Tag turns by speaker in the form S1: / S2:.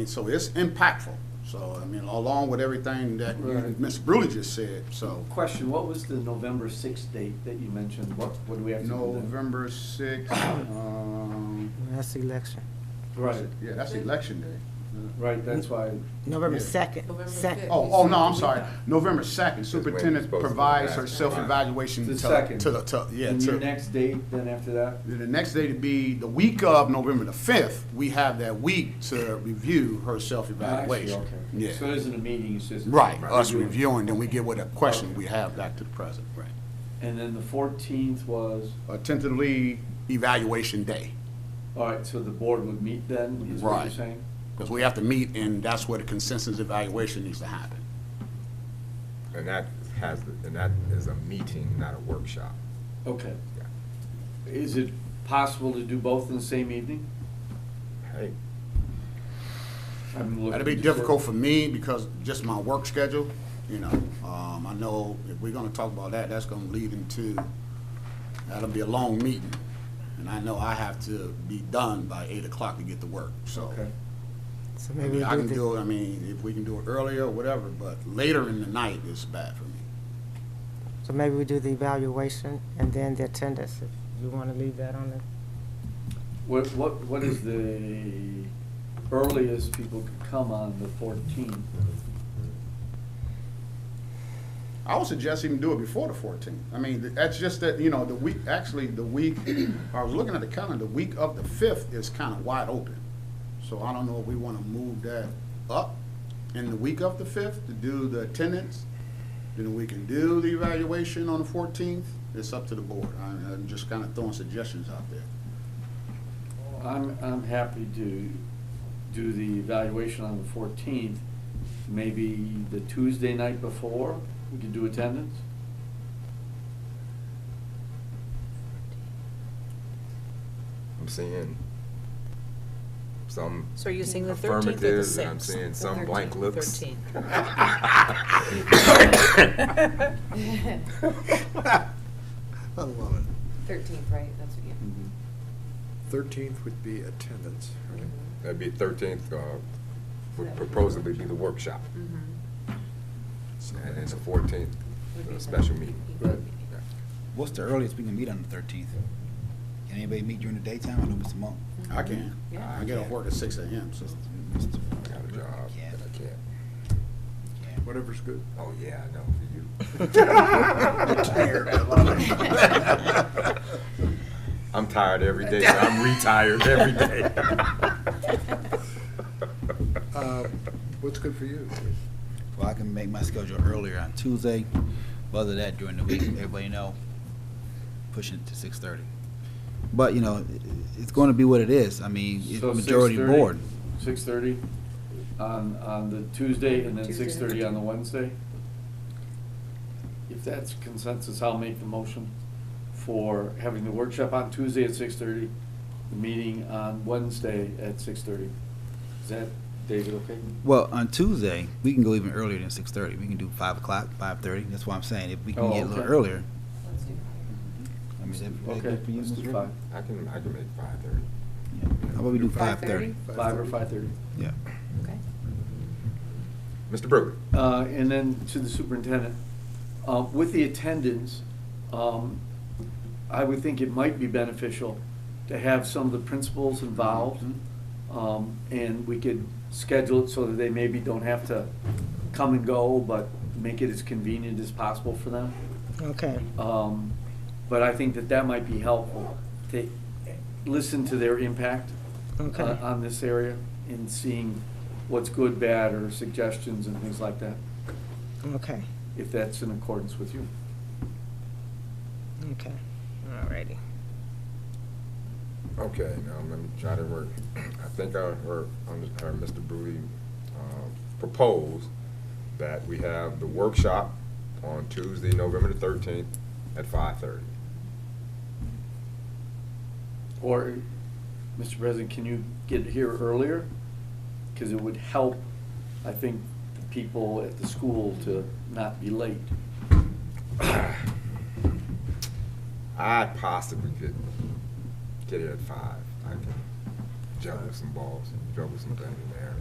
S1: And so it's impactful. So, I mean, along with everything that you-
S2: Right.
S1: Ms. Brewley just said, so.
S2: Question, what was the November sixth date that you mentioned? What, what do we have to do? then?
S1: November sixth, um,
S3: That's the election.
S2: Right,
S1: yeah, that's election day.
S2: right, that's why,
S3: November
S1: Yeah.
S3: second,
S4: November
S3: second.
S4: fifth.
S1: Oh, oh, no, I'm sorry, November second, superintendent
S5: supposed to
S1: provides
S5: do
S1: her
S5: that.
S1: self-evaluation
S2: The
S1: to,
S2: second.
S1: to the, to, yeah,
S2: and your
S1: to.
S2: next date, then after that?
S1: Then The next day to be the week of November the fifth, we have that week to review her
S2: Actually,
S1: self-evaluation.
S2: okay.
S1: Yeah,
S2: So it isn't a meeting, it's just.
S1: right, us reviewing, then we get what a question we have back to the president, right.
S2: And then the fourteenth was,
S1: A tentatively evaluation day.
S2: all right, so the board would meet then, is what you're
S1: Right.
S2: saying?
S1: Because we have to meet, and that's where the consensus evaluation needs to happen.
S5: And that has, and that is a meeting, not a workshop.
S2: Okay. Is it possible to do both in the same evening?
S5: Hey,
S2: I'm
S1: That'd
S2: looking
S1: be
S2: to-
S1: difficult for me because just my work schedule, you know. Um, I know if we're gonna talk about that, that's gonna lead into, that'll be a long meeting. And I know I have to be done by eight o'clock to get to work, so.
S2: Okay.
S3: So
S1: I
S3: maybe
S1: mean, I
S3: we
S1: can
S3: do
S1: do it, I mean, if we can do it earlier or whatever, but later in the night is bad for me.
S3: the, so maybe we do the evaluation and then the attendance, if you wanna leave that on the,
S2: What, what, what is the earliest people could come on the fourteenth?
S1: I would suggest even do it before the fourteenth. I mean, th- that's just that, you know, the week, actually, the week, I was looking at the calendar, the week of the fifth is kind of wide open. So I don't know if we want to move that up in the week of the fifth to do the attendance. Then we can do the evaluation on the fourteenth. It's up to the board. I'm, I'm just kind of throwing suggestions out there.
S2: I'm, I'm happy to do the evaluation on the fourteenth, maybe the Tuesday night before, we could do attendance?
S5: I'm seeing some
S4: So you're seeing the 13th or the
S5: affirmatives, and I'm
S4: 6th?
S5: seeing some blank looks.
S4: 13th.
S1: I love it.
S4: Thirteenth, right, that's what you.
S6: Thirteenth would be attendance, right?
S5: That'd be thirteenth, uh, would proposably be the workshop,
S4: Mm-hmm.
S6: So
S5: and then the fourteenth, a special meeting.
S2: Right.
S5: Yeah.
S7: What's the earliest we can meet on the thirteenth? Can anybody meet during the daytime? I know Mr. Monk.
S1: I can.
S4: Yeah.
S1: I get off work at six AM, so.
S5: I got a job
S7: Yeah.
S5: that I can't,
S6: Whatever's good.
S5: oh, yeah, I know, for you.
S6: Tired, I
S4: love
S5: I'm tired every day, but I'm retired every day.
S6: Uh, What's good for you?
S7: Well, I can make my schedule earlier on Tuesday, but other than that during the week, everybody know, pushing it to six thirty. But, you know, i- i- it's gonna be what it is. I mean, it's
S2: So
S7: majority
S2: 6:30?
S7: board.
S2: Six thirty on, on the Tuesday and then
S4: Tuesday.
S2: six thirty on the Wednesday? If that's consensus, I'll make the motion for having the workshop on Tuesday at six thirty, the meeting on Wednesday at six thirty. Is that, David, okay?
S7: Well, on Tuesday, we can go even earlier than six thirty. We can do five o'clock, five thirty. That's why I'm saying. If we
S2: Oh,
S7: can get a little
S2: okay.
S7: earlier.
S4: Let's do
S7: I mean, that'd be
S2: Okay,
S7: good for you,
S2: let's
S7: Mr.
S2: do
S7: Rick?
S2: five,
S5: I can, I can make five thirty.
S7: Yeah. How about we do five thirty?
S2: five or five thirty.
S7: Yeah.
S4: Okay.
S5: Mr. Brewer?
S2: Uh, and then to the superintendent, uh, with the attendance, um, I would think it might be beneficial to have some of the principals involved. Um, and we could schedule it so that they maybe don't have to come and go, but make it as convenient as possible for them.
S3: okay.
S2: Um, but I think that that might be helpful to listen to their impact
S3: Okay.
S2: on, on this area and seeing what's good, bad, or suggestions and things like that
S3: Okay,
S2: if that's in accordance with you.
S3: okay, all righty.
S5: Okay, now let me try to work. I think I heard, I heard Mr. Brewer uh, propose that we have the workshop on Tuesday, November the thirteenth at five thirty.
S2: Or, Mr. President, can you get here earlier? Because it would help, I think, the people at the school to not be late.
S5: I possibly could get here at five. I can juggle some balls, juggle some things in there.